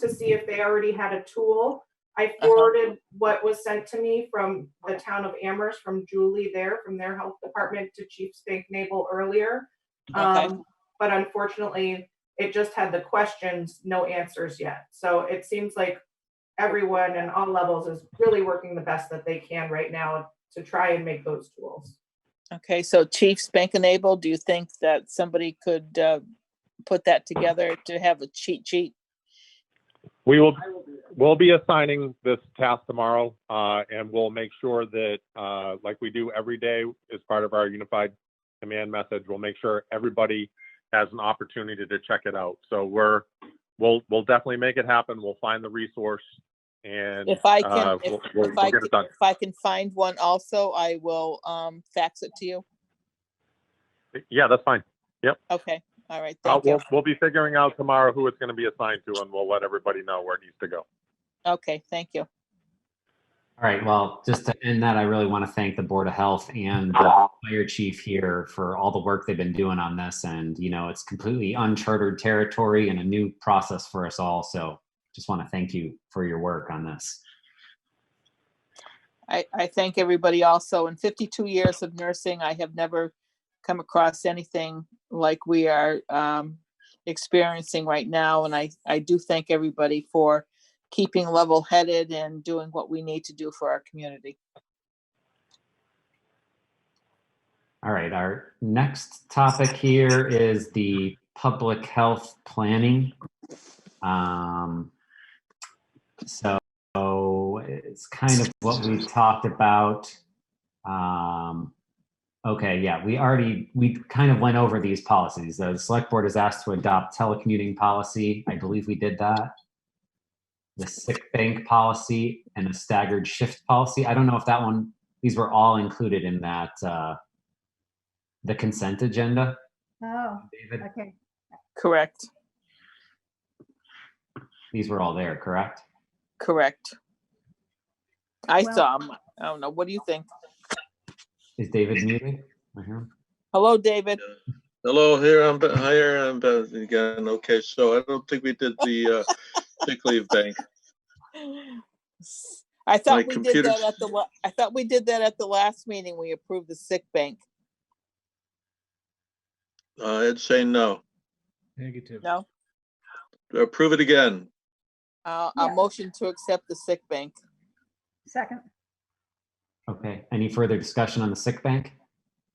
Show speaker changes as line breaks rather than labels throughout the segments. to see if they already had a tool. I forwarded what was sent to me from the town of Amherst, from Julie there, from their health department to Chief Spank Nabel earlier.
Okay.
Um, But unfortunately, it just had the questions, no answers yet. So it seems like everyone in all levels is really working the best that they can right now to try and make those tools.
Okay, so Chief Spankinable, do you think that somebody could uh, put that together to have a cheat sheet?
We will, we'll be assigning this task tomorrow, uh, and we'll make sure that, uh, like we do every day as part of our unified command message, we'll make sure everybody has an opportunity to check it out. So we're, we'll, we'll definitely make it happen. We'll find the resource and.
If I can,
uh,
if
we'll- We'll
if I
we'll get
can-
it done.
if I can find one also, I will um, fax it to you.
Yeah, that's fine.
Okay, all right,
Uh,
thank you.
we'll, we'll be figuring out tomorrow who it's gonna be assigned to and we'll let everybody know where it needs to go.
Okay, thank you.
All right, well, just to end that, I really want to thank the Board of Health and the fire chief here for all the work they've been doing on this. And, you know, it's completely uncharted territory and a new process for us all. So just want to thank you for your work on this.
I, I thank everybody also. In 52 years of nursing, I have never come across anything like we are um, experiencing right now. And I, I do thank everybody for keeping level headed and doing what we need to do for our community.
All right, our next topic here is the public health planning. Um, so it's kind of what we talked about. Um, okay, yeah, we already, we kind of went over these policies. The select board is asked to adopt telecommuting policy. I believe we did that. The sick bank policy and a staggered shift policy. I don't know if that one, these were all included in that, uh, the consent agenda,
Oh,
David?
okay.
Correct,
These were all there, correct?
correct. I
Well-
saw 'em. I don't know. What do you think?
Is David muted? I hear him.
Hello, David.
Hello, here I'm, Be- here I'm Beth again. Okay, so I don't think we did the uh, sick leave bank.
I
My
thought we did
computer-
that at the, la- I thought we did that at the last meeting. We approved the sick bank.
Uh, I'd say no.
Negative.
No?
Approve it again.
Uh, a
Yeah.
motion to accept the sick bank.
Second,
Okay, any further discussion on the sick bank?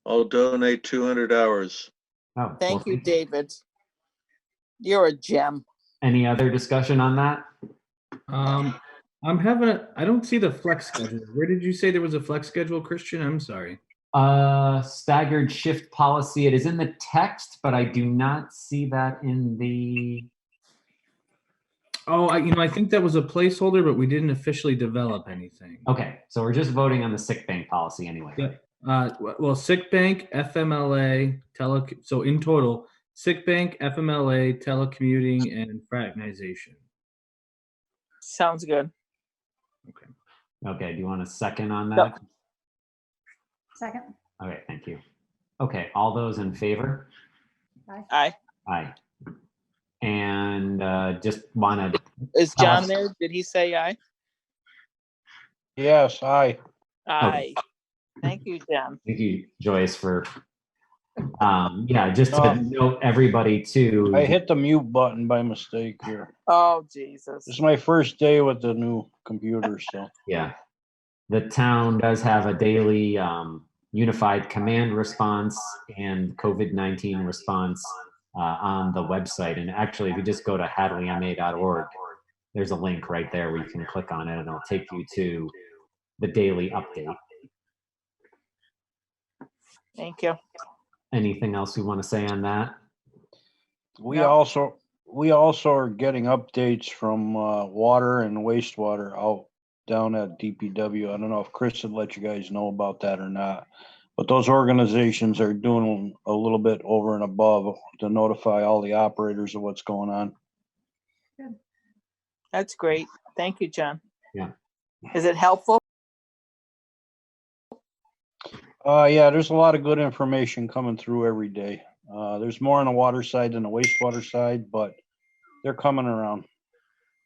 I'll donate 200 hours.
Oh,
Thank
well,
you, David. You're a gem.
Any other discussion on that?
Um, I'm having a, I don't see the flex schedule. Where did you say there was a flex schedule, Christian? I'm sorry.
Uh, staggered shift policy, it is in the text, but I do not see that in the,
Oh, I, you know, I think that was a placeholder, but we didn't officially develop anything.
okay, so we're just voting on the sick bank policy anyway.
Yeah. Uh, w- well, sick bank, FMLA, tele, so in total, sick bank, FMLA, telecommuting, and fraternization.
Sounds good.
Okay, do you want a second on
No.
that?
second,
All right, thank you. Okay, all those in favor?
Aye.
Aye. And, uh, just want to
Is John
Awesome.
there? Did he say aye?
Yes, aye.
Aye. Thank you, John.
Thank you, Joyce, for, um, yeah, just to
Um,
note everybody too.
I hit the mute button by mistake here.
Oh, Jesus.
This is my first day with the new computer, so.
Yeah. The town does have a daily, um, unified command response and COVID-19 response, uh, on the website. And actually, if you just go to hadleyma.org, there's a link right there where you can click on it and it'll take you to the daily update.
Thank you.
Anything else you want to say on that?
We
Yeah.
also, we also are getting updates from, uh, water and wastewater out down at DPW. I don't know if Chris had let you guys know about that or not. But those organizations are doing a little bit over and above to notify all the operators of what's going on.
That's great. Thank you, John.
Yeah.
Is it helpful?
Uh, yeah, there's a lot of good information coming through every day. Uh, there's more on the water side than the wastewater side, but they're coming around.